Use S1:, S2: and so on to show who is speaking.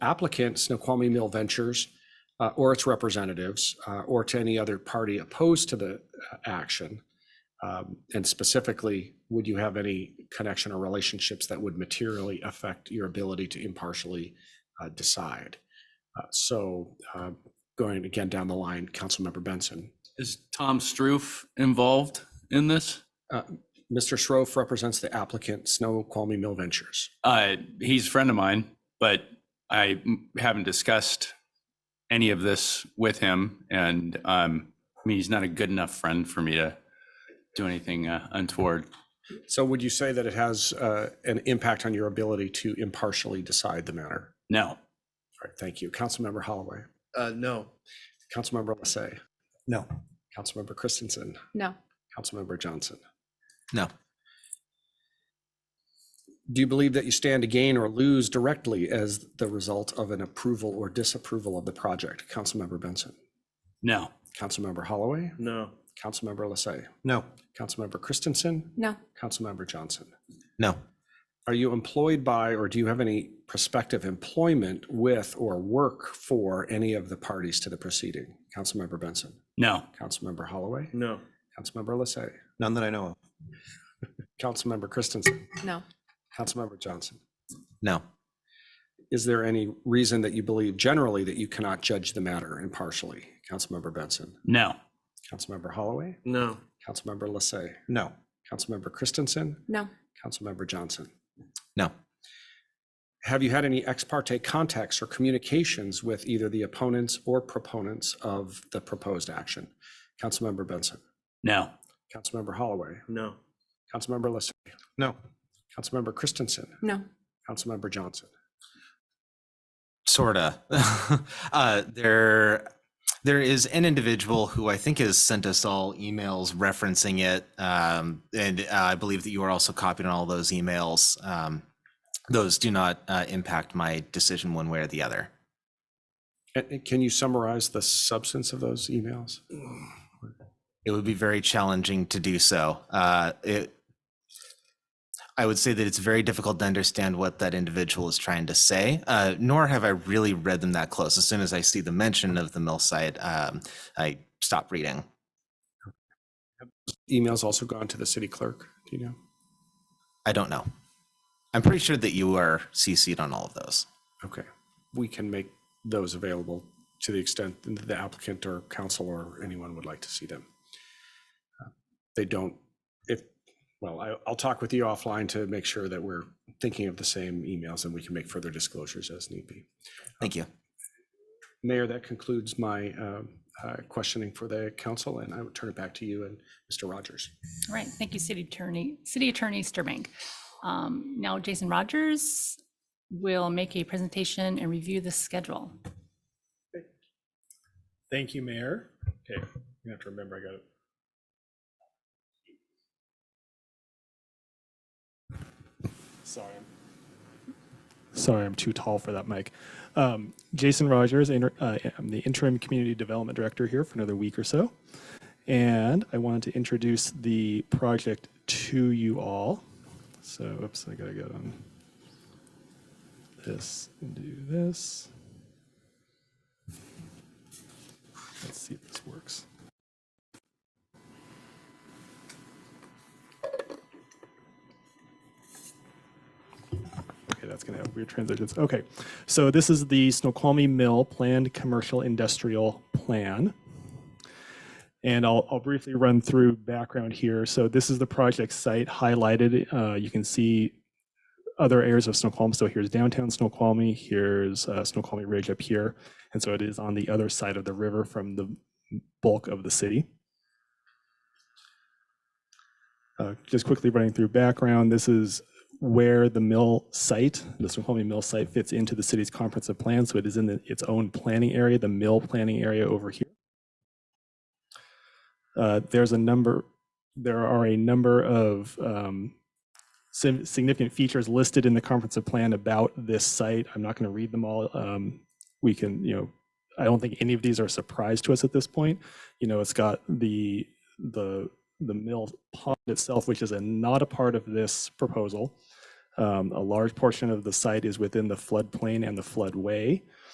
S1: applicant, Snoqualmie Mill Ventures, uh, or its representatives, uh, or to any other party opposed to the uh, action? Um, And specifically, would you have any connection or relationships that would materially affect your ability to impartially uh, decide? Uh, So uh, going again down the line, Councilmember Benson.
S2: Is Tom Stroof involved in this?
S1: Uh, Mr. Schroff represents the applicant, Snoqualmie Mill Ventures.
S2: Uh, he's a friend of mine, but I m- haven't discussed any of this with him. And um, I mean, he's not a good enough friend for me to do anything uh, untoward.
S1: So would you say that it has uh, an impact on your ability to impartially decide the matter?
S2: No.
S1: All right, thank you. Councilmember Holloway,
S3: Uh, no.
S1: Councilmember Lassay,
S4: No.
S1: Councilmember Christensen,
S5: No.
S1: Councilmember Johnson.
S4: No.
S1: Do you believe that you stand to gain or lose directly as the result of an approval or disapproval of the project? Councilmember Benson,
S2: No.
S1: Councilmember Holloway,
S3: No.
S1: Councilmember Lassay,
S4: No.
S1: Councilmember Christensen,
S5: No.
S1: Councilmember Johnson.
S4: No.
S1: Are you employed by, or do you have any prospective employment with or work for any of the parties to the proceeding? Councilmember Benson,
S2: No.
S1: Councilmember Holloway,
S3: No.
S1: Councilmember Lassay,
S4: None that I know of.
S1: Councilmember Christensen,
S5: No.
S1: Councilmember Johnson.
S4: No.
S1: Is there any reason that you believe generally that you cannot judge the matter impartially? Councilmember Benson,
S2: No.
S1: Councilmember Holloway,
S3: No.
S1: Councilmember Lassay,
S4: No.
S1: Councilmember Christensen,
S5: No.
S1: Councilmember Johnson.
S4: No.
S1: Have you had any ex parte contacts or communications with either the opponents or proponents of the proposed action? Councilmember Benson,
S2: No.
S1: Councilmember Holloway,
S3: No.
S1: Councilmember Lassay,
S4: No.
S1: Councilmember Christensen,
S5: No.
S1: Councilmember Johnson.
S4: Sorta. uh, there, there is an individual who I think has sent us all emails referencing it, um, and uh, I believe that you are also copied on all those emails. Um, those do not uh, impact my decision one way or the other.
S1: Can- Can you summarize the substance of those emails?
S4: it would be very challenging to do so. Uh, it, I would say that it's very difficult to understand what that individual is trying to say, uh, nor have I really read them that close. As soon as I see the mention of the mill site, um, I stop reading.
S1: Emails also gone to the city clerk, do you know?
S4: I don't know. I'm pretty sure that you are CC'd on all of those.
S1: Okay, we can make those available to the extent that the applicant or council or anyone would like to see them. Uh, They don't, if, well, I, I'll talk with you offline to make sure that we're thinking of the same emails and we can make further disclosures as need be.
S4: Thank you.
S1: Mayor, that concludes my um, uh, questioning for the council and I would turn it back to you and Mr. Rogers.
S6: All right, thank you, City Attorney, City Attorney Sturbank. Um, Now Jason Rogers will make a presentation and review the schedule.
S7: Thank you, Mayor. Okay, you have to remember I got it. Sorry. Sorry, I'm too tall for that mic. Um, Jason Rogers, inter- uh, I'm the interim community development director here for another week or so. And I wanted to introduce the project to you all. So, oops, I gotta go on this and do this. Let's see if this works. Okay, that's gonna have weird transitions. Okay, so this is the Snoqualmie Mill Planned Commercial Industrial Plan. And I'll, I'll briefly run through background here. So this is the project site highlighted. Uh, you can see other areas of Snoqualmie. So here's downtown Snoqualmie, here's uh, Snoqualmie Ridge up here. And so it is on the other side of the river from the bulk of the city. Uh, just quickly running through background, this is where the mill site, the Snoqualmie Mill site fits into the city's comprehensive plan. So it is in the- its own planning area, the mill planning area over here. Uh, there's a number, there are a number of um, sim- significant features listed in the comprehensive plan about this site. I'm not going to read them all. Um, we can, you know, I don't think any of these are a surprise to us at this point. You know, it's got the the the mill pond itself, which is a, not a part of this proposal. Um, A large portion of the site is within the floodplain and the floodway.